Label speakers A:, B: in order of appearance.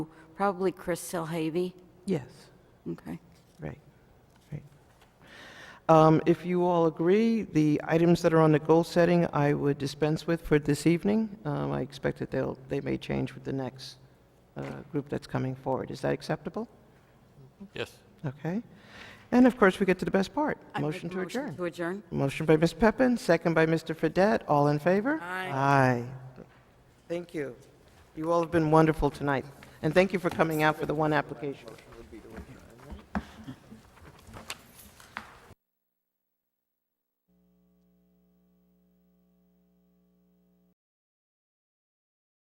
A: Probably Chris Silhavy.
B: Yes,
A: Okay.
B: right, right. Um, If you all agree, the items that are on the goal setting, I would dispense with for this evening. Um, I expect that they'll, they may change with the next uh, group that's coming forward. Is that acceptable?
C: Yes.
B: Okay. And of course, we get to the best part,
A: I make
B: motion
A: a
B: to adjourn.
A: To adjourn.
B: Motion by Ms. Peppin, second by Mr. Fedett. All in favor? Aye. Aye. Thank you. You all have been wonderful tonight, and thank you for coming out for the one application.